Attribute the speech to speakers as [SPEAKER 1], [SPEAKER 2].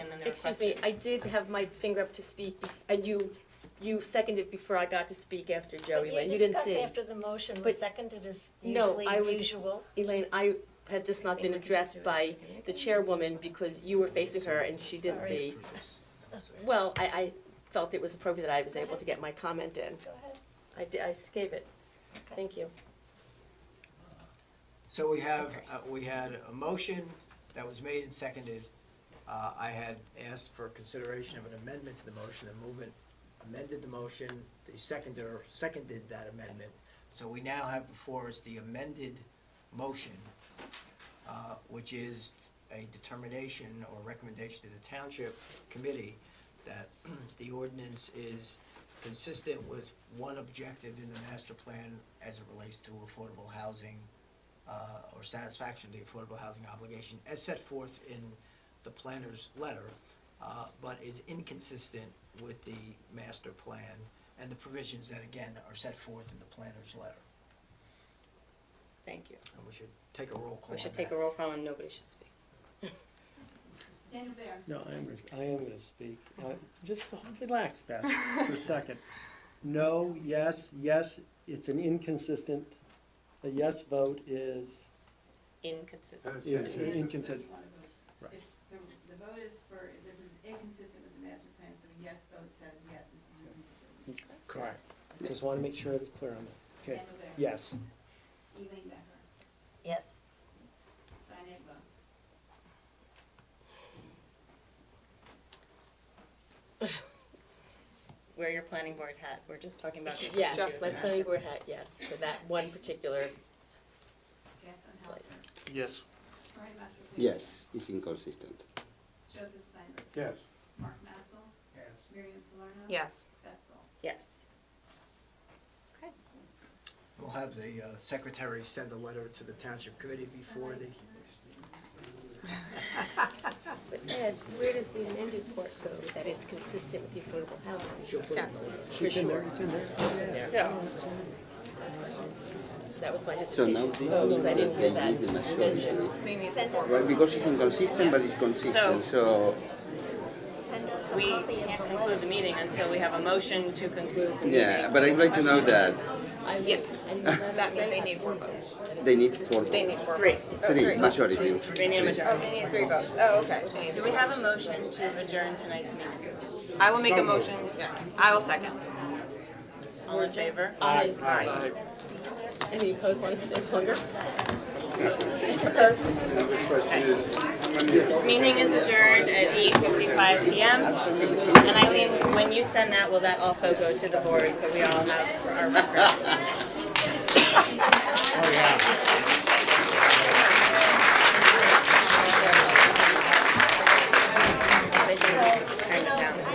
[SPEAKER 1] there were
[SPEAKER 2] Excuse me,
[SPEAKER 1] questions.
[SPEAKER 2] I did have my finger up to speak, bef- and you, s- you seconded before I got to speak after Joey Lynn, you didn't
[SPEAKER 3] You
[SPEAKER 2] see.
[SPEAKER 3] discuss after the motion
[SPEAKER 2] But-
[SPEAKER 3] was seconded as
[SPEAKER 2] No,
[SPEAKER 3] usually
[SPEAKER 2] I was-
[SPEAKER 3] usual.
[SPEAKER 2] Elaine, I had just not been
[SPEAKER 3] Maybe we could just do
[SPEAKER 2] addressed
[SPEAKER 3] it.
[SPEAKER 2] by the chairwoman because you were facing her and she didn't
[SPEAKER 3] Sorry.
[SPEAKER 2] see. Well, I, I felt it was appropriate that I was able to get my comment in.
[SPEAKER 3] Go ahead.
[SPEAKER 2] I did, I gave it.
[SPEAKER 3] Okay.
[SPEAKER 2] Thank you.
[SPEAKER 4] So we have, uh, we had a motion that was made and seconded. Uh, I had asked for consideration of an amendment to the motion, the movement amended the motion, the seconder seconded that amendment. So we now have before us the amended motion, uh, which is a determination or recommendation to the township committee that the ordinance is consistent with one objective in the master plan as it relates to affordable housing uh, or satisfaction of the affordable housing obligation as set forth in the planner's letter, uh, but is inconsistent with the master plan and the provisions that, again, are set forth in the planner's letter.
[SPEAKER 1] Thank you.
[SPEAKER 4] And we should take a roll call
[SPEAKER 1] We should
[SPEAKER 4] on
[SPEAKER 1] take a
[SPEAKER 4] that.
[SPEAKER 1] roll call and nobody should speak.
[SPEAKER 5] Daniel Bear.
[SPEAKER 6] No, I am, gonna- I am gonna speak. Uh, Just relax that for a second. No, yes, yes, it's an inconsistent, a yes vote is,
[SPEAKER 1] Inconsistent.
[SPEAKER 6] is inconsistent. Right.
[SPEAKER 5] If- So the vote is for, this is inconsistent with the master plan, so a yes vote says yes, this is inconsistent.
[SPEAKER 6] Correct. Just wanna make sure I was clear on that. Okay.
[SPEAKER 5] Daniel Bear.
[SPEAKER 6] Yes.
[SPEAKER 5] Elaine Becker.
[SPEAKER 3] Yes.
[SPEAKER 5] Diane Agbo.
[SPEAKER 1] Wear your planning board hat. We're just talking about. the
[SPEAKER 2] Yes,
[SPEAKER 1] executive
[SPEAKER 2] my
[SPEAKER 1] master
[SPEAKER 2] planning board hat, yes, for that one particular
[SPEAKER 5] Yes, on
[SPEAKER 2] Slice.
[SPEAKER 5] Helper.
[SPEAKER 7] Yes.
[SPEAKER 5] Brian Matthew.
[SPEAKER 8] Yes, it's inconsistent.
[SPEAKER 5] Joseph Steinberg.
[SPEAKER 7] Yes.
[SPEAKER 5] Mark Matzel. Yes. Miriam Salerno.
[SPEAKER 1] Yes.
[SPEAKER 5] Beth Sol.
[SPEAKER 2] Yes.
[SPEAKER 4] We'll have the uh, secretary send a letter to the township committee before the,
[SPEAKER 2] But Ed, where does the amended part go that it's consistent with the affordable housing?
[SPEAKER 4] she'll put it in the letter.
[SPEAKER 2] For sure.
[SPEAKER 1] So,
[SPEAKER 2] That was my
[SPEAKER 8] So now
[SPEAKER 2] dissertation.
[SPEAKER 8] this
[SPEAKER 2] Oh,
[SPEAKER 8] means
[SPEAKER 2] because I
[SPEAKER 8] that
[SPEAKER 2] didn't
[SPEAKER 8] they
[SPEAKER 2] hear that.
[SPEAKER 8] need the majority.
[SPEAKER 3] Send us,
[SPEAKER 8] Well, because it's inconsistent, but it's consistent, so,
[SPEAKER 3] send us a
[SPEAKER 1] we
[SPEAKER 3] copy of
[SPEAKER 1] can't
[SPEAKER 3] the
[SPEAKER 1] conclude the
[SPEAKER 3] letter.
[SPEAKER 1] meeting until we have a motion to conclude the meeting.
[SPEAKER 8] yeah, but I'd like to know that
[SPEAKER 2] I would- I would never
[SPEAKER 9] That means
[SPEAKER 2] say
[SPEAKER 9] they
[SPEAKER 2] that.
[SPEAKER 9] need four votes.
[SPEAKER 8] they need four,
[SPEAKER 9] They need four.
[SPEAKER 1] Three.
[SPEAKER 9] votes. Oh,
[SPEAKER 8] three,
[SPEAKER 9] three.
[SPEAKER 8] majority.
[SPEAKER 1] They need
[SPEAKER 9] Oh,
[SPEAKER 1] a majority.
[SPEAKER 9] they need three votes. Oh, okay. They need
[SPEAKER 1] Do
[SPEAKER 9] three
[SPEAKER 1] we have a motion to adjourn tonight's meeting?
[SPEAKER 9] votes. I will make a motion. Yeah. I will second.
[SPEAKER 1] All in favor?
[SPEAKER 2] I-
[SPEAKER 7] Aye.
[SPEAKER 2] Any opposed wants to stay longer?
[SPEAKER 1] This meeting is adjourned at eight fifty-five PM. And Eileen, when you send that, will that also go to the board so we all have our record?